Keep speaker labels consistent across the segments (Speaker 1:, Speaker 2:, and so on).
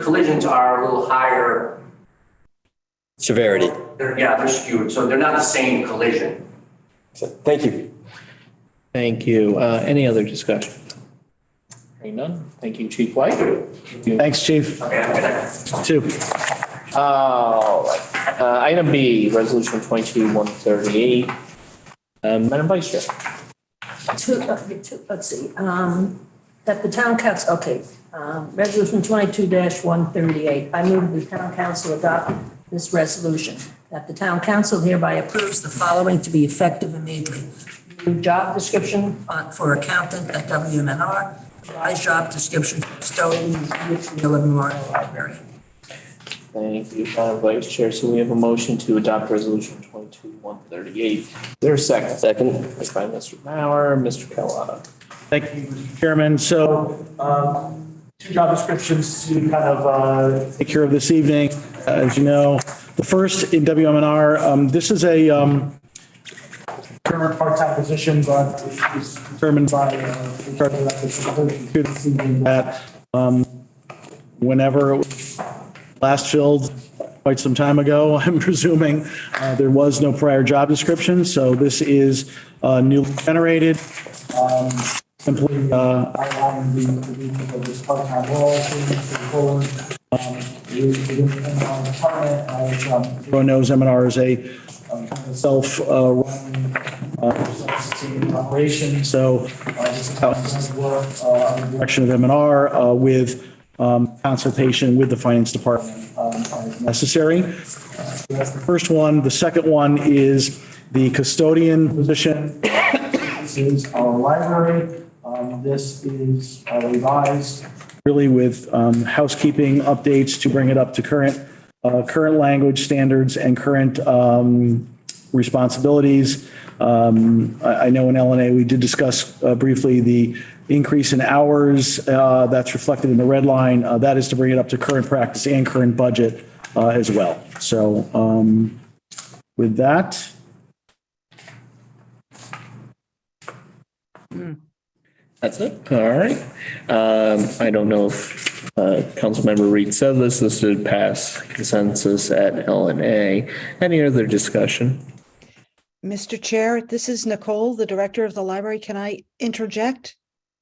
Speaker 1: collisions are a little higher.
Speaker 2: severity.
Speaker 1: They're, yeah, they're skewed, so they're not the same collision.
Speaker 2: So, Thank you.
Speaker 3: Thank you. Uh, Any other discussion? Hearing none. Thank you, Chief White.
Speaker 4: Thanks, chief.
Speaker 1: Okay, I'm gonna.
Speaker 4: Two.
Speaker 3: All right. Uh, Item B, Resolution 22-138. Uh, Madam Vice Chair.
Speaker 5: Two, uh, two- let's see, um, that the town council, okay, um, resolution twenty-two one thirty-eight. I move the town council adopt this resolution, that the town council hereby approves the following to be effective immediately. New job description on- for accountant at WMNR, revised job description for custodian at the Memorial Library.
Speaker 3: Thank you, Madam Vice Chair. So we have a motion to adopt Resolution 22-138. Is there a second?
Speaker 2: Second,
Speaker 3: Seconded by Mr. Mauer, Mr. Kellogg.
Speaker 4: Thank you, Mr. Chairman. So um, two job descriptions to kind of uh, take care of this evening. Uh, As you know, the first in WMNR, um, this is a um, current part-time position, but is determined by uh, regard to that, this is a whole issue this evening that um, whenever it was last filled quite some time ago, I'm presuming, uh, there was no prior job description. So this is uh, newly generated simply uh, outline the convenience of this part-time role, moving forward. um, with- Within the M&R department, as um, everyone knows, M&R is a um, kind of self-running, self-sustaining operation. So uh, this is how it does work uh, under the direction of M&R uh, with um, consultation with the finance department um, as necessary. Uh, That's the first one. The second one is the custodian position. This is our library. Um, This is uh, revised, really with um, housekeeping updates to bring it up to current, uh, current language standards and current um, responsibilities. Um, I I know in LNA, we did discuss uh, briefly the increase in hours uh, that's reflected in the red line. Uh, That is to bring it up to current practice and current budget uh, as well. So um, with that,
Speaker 3: That's it. All right. Um, I don't know if uh, Councilmember Reed said this, this did pass consensus at L and A. Any other discussion?
Speaker 6: Mr. Chair, this is Nicole, the Director of the Library. Can I interject?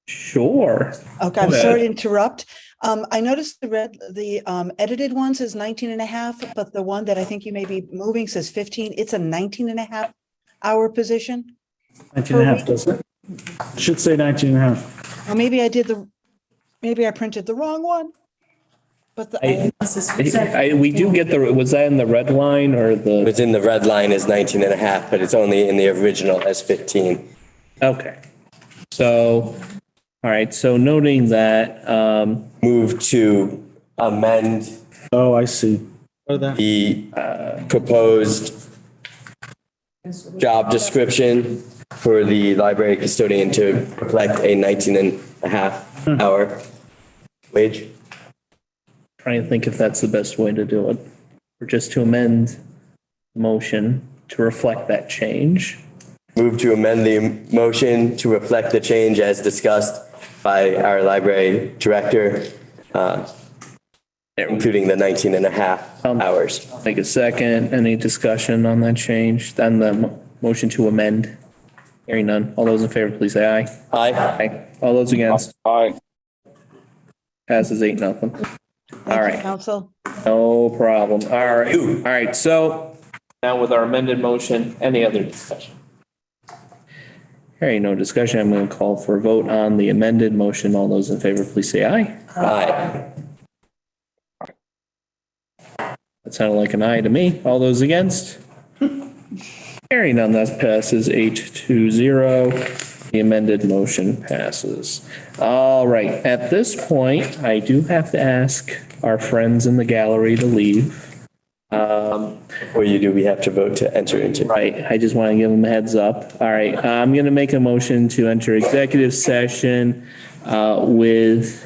Speaker 3: Sure.
Speaker 6: Okay, I'm
Speaker 3: Go
Speaker 6: sorry to
Speaker 3: ahead.
Speaker 6: interrupt. Um, I noticed the red, the, um, edited one says 19 and a half, but the one that I think you may be moving says 15. It's a 19 and a half hour position.
Speaker 4: 19 and a half, doesn't it? It Should say 19 and a half.
Speaker 6: Or maybe I did the, maybe I printed the wrong one. But the,
Speaker 3: I- I, we do get the, was that in the red line or the,
Speaker 2: within the red line is 19 and a half, but it's only in the original as 15.
Speaker 3: okay. So, all right, so noting that, um,
Speaker 2: Move to amend
Speaker 4: Oh, I see.
Speaker 2: the uh, proposed job description for the library custodian to reflect a 19 and a half hour wage.
Speaker 3: trying to think if that's the best way to do it. Or just to amend the motion to reflect that change.
Speaker 2: Move to amend the motion to reflect the change as discussed by our library director, uh, including the 19 and a half
Speaker 3: Um,
Speaker 2: hours.
Speaker 3: Take a second. Any discussion on that change? Then the mo- motion to amend. Hearing none. All those in favor, please say aye.
Speaker 2: Aye.
Speaker 3: Aye. All those against? Aye. Passes eight, nothing. All
Speaker 6: thank you,
Speaker 3: right.
Speaker 6: Council.
Speaker 3: No problem. All right. All right. So now with our amended motion, any other discussion? Hearing no discussion, I'm going to call for a vote on the amended motion. All those in favor, please say aye.
Speaker 2: Aye.
Speaker 3: That sounded like an aye to me. All those against? Hearing none, that passes eight to zero. The amended motion passes. All right, at this point, I do have to ask our friends in the gallery to leave. Um,
Speaker 2: Before you do, we have to vote to enter into.
Speaker 3: Right, I just want to give them a heads up. All right, I'm going to make a motion to enter executive session uh, with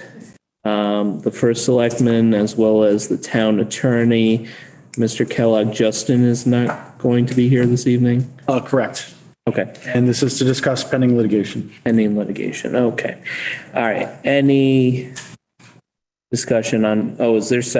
Speaker 3: um, the first selectman as well as the town attorney. Mr. Kellogg, Justin is not going to be here this evening?
Speaker 4: Uh, Correct.
Speaker 3: Okay,
Speaker 4: And this is to discuss pending litigation.
Speaker 3: pending litigation, okay. All right, any discussion on, oh, is there second?